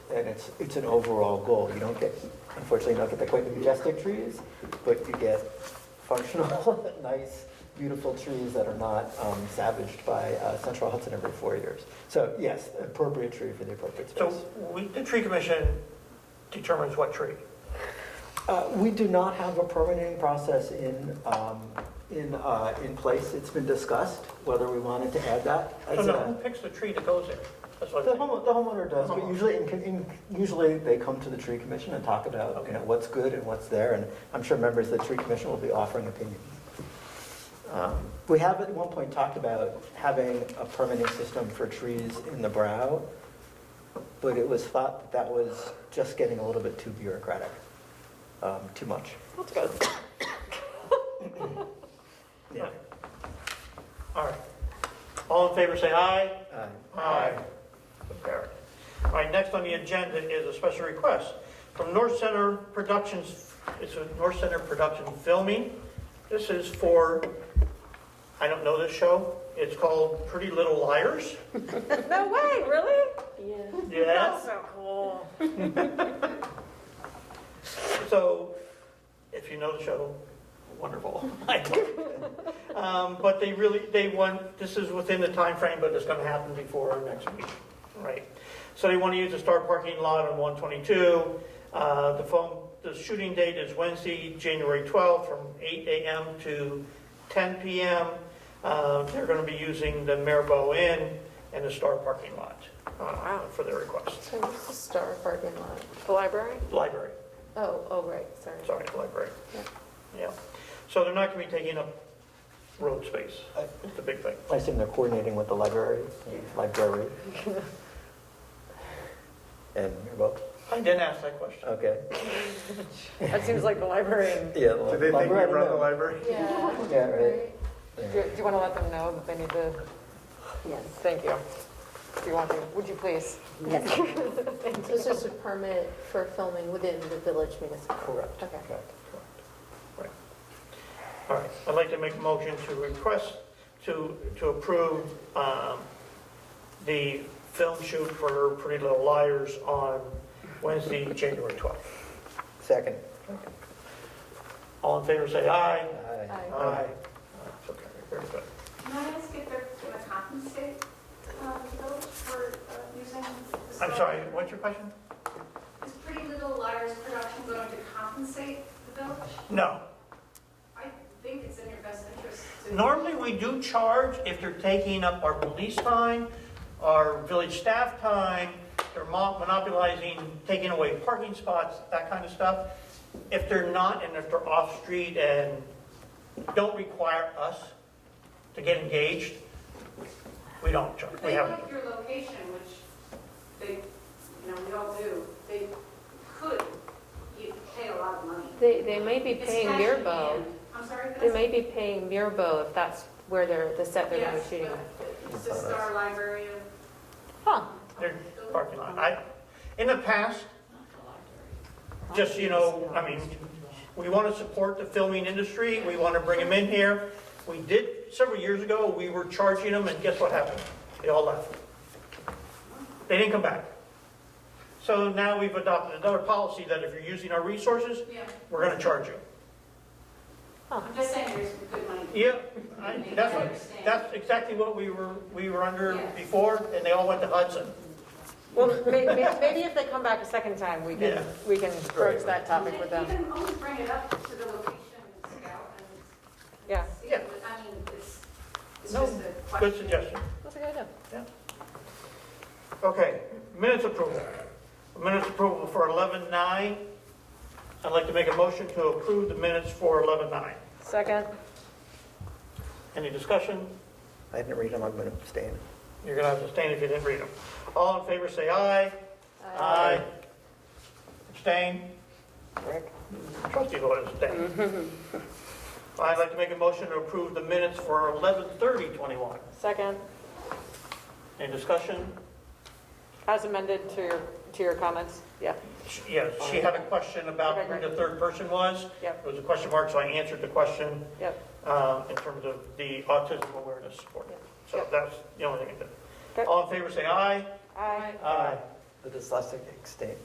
And it's, it's an overall goal. You don't get, unfortunately, you don't get the quite the majestic trees, but you get functional, nice, beautiful trees that are not um, savaged by uh, Central Hudson every four years. So yes, appropriate tree for the appropriate So space. we, the tree commission determines what tree. Uh, We do not have a permitting process in, um, in, uh, in place. It's been discussed whether we wanted to add that. So as now a- Oh, who picks the tree that goes there? That's what The I'm saying. homeowner, the homeowner does, but usually, in, in, usually they come to the tree commission and talk about, you know, what's good and what's there, and I'm sure members of the tree commission will be offering opinions. Um, We have at one point talked about having a permitting system for trees in the brow, but it was thought that was just getting a little bit too bureaucratic, um, too much. That's good. Yeah. All right. All in favor, say aye. Uh, Aye. Carried. All right, next on the agenda is a special request from North Center Productions, it's a North Center Production Filming. This is for, I don't know this show, it's called Pretty Little Liars. No way, really? Yeah. Yes. so cool. So, if you know the show, wonderful. I don't. Um, But they really, they want, this is within the time frame, but it's gonna happen before our next meeting, right? So they wanna use the Star parking lot on 122. Uh, The phone, the shooting date is Wednesday, January 12th, from 8 AM to 10 PM. Uh, They're gonna be using the Maribo Inn and the Star parking lot uh, for their request. So what's the Star parking lot? The library? Library. Oh, oh, right, sorry. Sorry, the library. Yeah. Yeah. So they're not going to be taking up road space, I- It's the big thing. I assume they're coordinating with the library, library. And, well, I didn't ask that question. okay, That seems like the library. yeah. Do they think we library, I don't run the know. library? Yeah. Yeah, right. Do do you want to let them know that they need to? Yes. Thank you. Do you want to? Would you please? This is a permit for filming within the village municipal. Correct. Okay. Correct. All right, I'd like to make a motion to request, to, to approve um, the film shoot for Pretty Little Liars on Wednesday, January 12th. Second. All in favor, say aye. Aye. Aye. Aye. So carried. Very good. Can I ask if they're going to compensate um, the village for uh, using the... I'm sorry, what's your question? Is Pretty Little Liars production going to compensate the village? No. I think it's in your best interest to... Normally, we do charge if they're taking up our police time, our village staff time, they're mo- monopolizing, taking away parking spots, that kind of stuff. If they're not, and if they're off-street and don't require us to get engaged, we don't charge, If we They haven't. like your location, which they, you know, we all do, they could, you pay a lot of money. They, they may be It's paying cash in Mirbo. hand. I'm sorry, They Vanessa? may be paying Mirbo if that's where they're, the set they're going to be Yes, shooting. but it's just our library of... Huh. Their parking lot. I, in the past, just, you know, I mean, we want to support the filming industry, we want to bring them in here. We did, several years ago, we were charging them, and guess what happened? They all left. They didn't come back. So now we've adopted another policy that if you're using our resources, Yeah, we're going to charge you. I'm just saying there's good money. Yeah, I- that's what, that's exactly what we were, we were under before, and they all went to Hudson. Well, may- may- maybe if they come back a second time, we Yeah. can, we can broach that topic with them. You can always bring it up to the location scout and. Yeah. see, Yeah. but I mean, it's, it's No, just a Good question. suggestion. That's a good idea. Okay, minutes approval. Minutes approval for 11-9. I'd like to make a motion to approve the minutes for 11-9. Second? Any discussion? I didn't read them, I'm going to abstain. You're going to have to abstain if you didn't read them. All in favor, say aye. Aye. Abstain? Rick? Trustee voted abstain. I'd like to make a motion to approve the minutes for 11:30-21. Second? Any discussion? As amended to your, to your comments? Yeah. She- Yeah, she had a question about Okay, who great. the third person was. Yep. It was a question mark, so I answered the question. Yep. um, in terms of the autism awareness support. So Yep. that's the only thing I Okay. did. All in favor, say aye. Aye. Aye. the dyslexic extent.